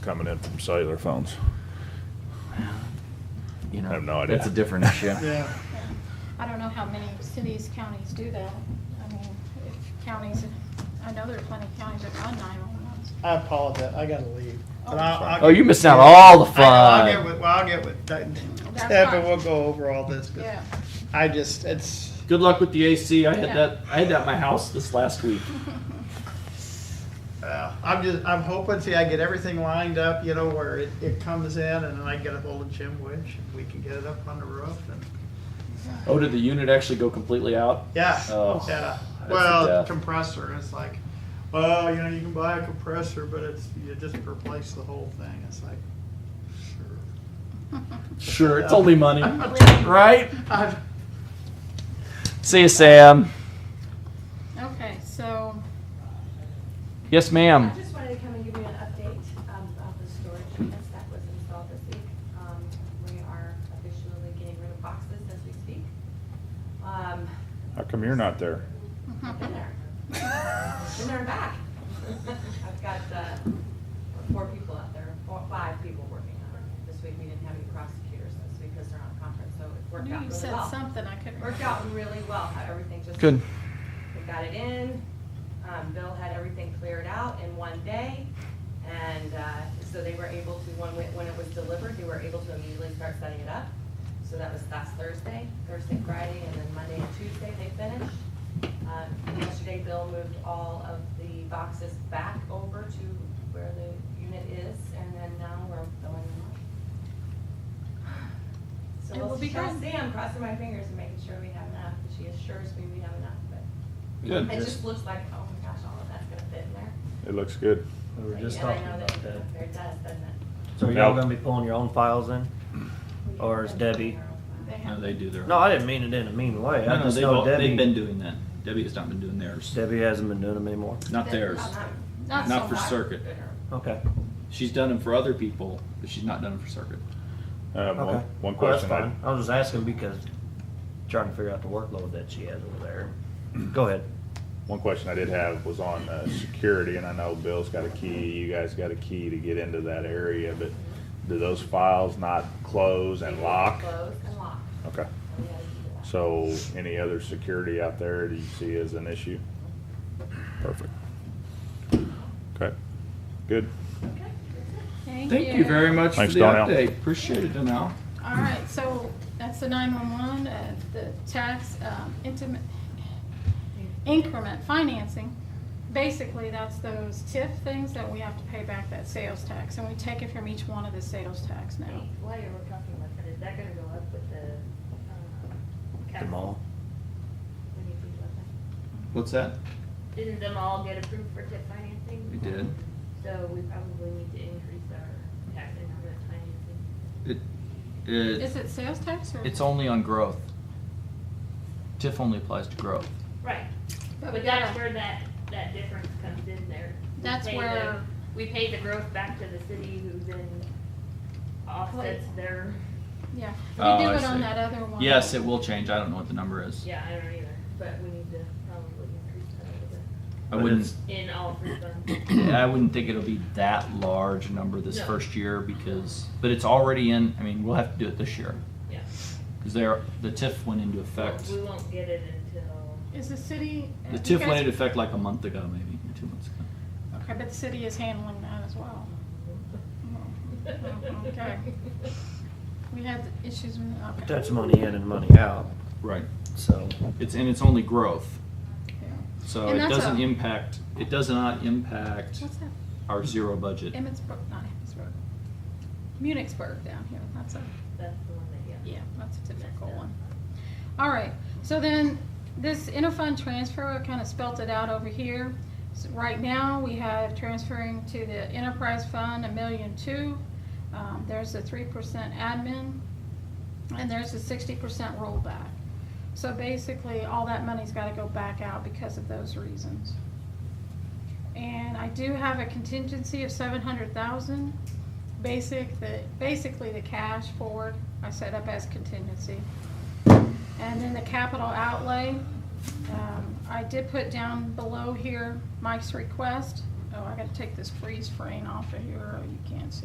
coming in from cellular phones. You know, I have no idea. That's a different issue. Yeah. I don't know how many cities, counties do that. I mean, if counties, I know there are plenty of counties that run 911s. I apologize. I gotta leave. But I'll- I'll Oh, get- you missing out all the I know, I'll fun. get with, well, I'll get with That's Steph fine. and we'll go over all this. But Yeah, I just, it's, Good luck with the AC. I had Yeah. that. I had that at my house this last week. uh, I'm just, I'm hoping, see, I get everything lined up, you know, where it, it comes in and then I get a hold of Jim Winch and we can get it up on the roof and, Oh, did the unit actually go completely out? yeah, Uh, Oh, yeah. a Well, death. compressor, it's like, well, you know, you can buy a compressor, but it's, you just replace the whole thing. It's like, sure. Sure, it's only money, right? I've, See you, Sam. okay, so, Yes, I ma'am. just wanted to come and give you an update um, about the storage units that was installed this week. Um, We are officially getting rid of boxes as we speak. Um, How come you're not there? I've been there. Been there and back. I've got uh, four people out there, four, five people working on it. This week, we didn't have any prosecutors this week because they're on conference, so it I worked out really knew well. you said something, I couldn't. Worked out really well, how everything just. Good. We got it in, um, Bill had everything cleared out in one day, and, uh, so they were able to, when, we- when it was delivered, they were able to immediately start setting it up. So that was last Thursday, Thursday, Friday, and then Monday and Tuesday they finished. Um, yesterday, Bill moved all of the boxes back over to where the unit is, and then now we're filling them up. So It will we'll be trust good. Sam, crossing my fingers and making sure we have enough, but she assures me we have enough, but it just looks like, oh my gosh, all of that's gonna fit in there. It looks good. We were just And I talking know about that. There it does, doesn't it? So are y'all gonna be pulling your own files in? We can Or is put it Debbie- in our own They file. No, have, they do their. No, I didn't mean it in a mean way. No, I no, just they've, know all- they've been Debbie, doing that. Debbie has not been doing theirs. Debbie hasn't been doing them anymore. Not theirs. not Not so for much. circuit. Okay. She's done them for other people, but she's not done them for circuit. Um, Okay. one, one Well, that's question. I- fine. I was just asking because trying to figure out the workload that she has over there. Go ahead. One question I did have was on uh, security, and I know Bill's got a key, you guys got a key to get into that area, but do those files not close and lock? Close and lock. Okay, We gotta do that. so any other security out there that you see as an issue? Perfect. Okay, good. Okay, that's it. Thank you very much for Thanks, the Donnell. update. Appreciate it, Donnell. All right, so that's the 911, uh, the tax um, intimate increment financing. Basically, that's those TIF things that we have to pay back that sales tax, and we take it from each one of the sales tax now. While you were talking about that, is that gonna go up with the, um, The uh, capital? mall. What do you think about that? What's that? Didn't them all get approved for tip financing? We did. So we probably need to increase our tax increment financing. It, it, Is it sales tax or? it's only on growth. TIF only applies to growth. Right, But but that's where that, that difference comes in there. We That's pay the- where- We pay the growth back to the city who then offsets their, Yeah, Oh, we do I it on see. that other one. Yes, it will change. I don't know what the number is. yeah, I don't either, but we need to probably increase that a little I But wouldn't, it's- bit in all three funds. I wouldn't think it'll be that large a number this No. first year because, but it's already in, I mean, we'll have to do it this year. Yeah. Because there, the TIF went into effect. We won't get it until. Is the city? The you TIF went guys- into effect like a month ago, maybe, or two months ago. Okay, but the city is handling that as well. Mm, Okay. We had issues with, okay. But that's money in and money out. Right. So It's, and it's only growth, Yeah. so And it that's doesn't a- impact, it does not impact What's that? our zero budget. Emmitsburg, not Emmitsburg. Munichsburg down here, that's a, That's the one that, yeah. uh, yeah, that's a difficult one. All right, so then, this interfund transfer, I kind of spelt it out over here. So Right now, we have transferring to the enterprise fund, a million two. Um, there's a three percent admin, and there's a sixty percent rollback. So basically, all that money's gotta go back out because of those reasons. And I do have a contingency of seven hundred thousand, basic, the, basically the cash forward I set up as contingency. And then the capital outlay, um, I did put down below here Mike's request Oh, I gotta take this freeze frame off of here, or you can't see.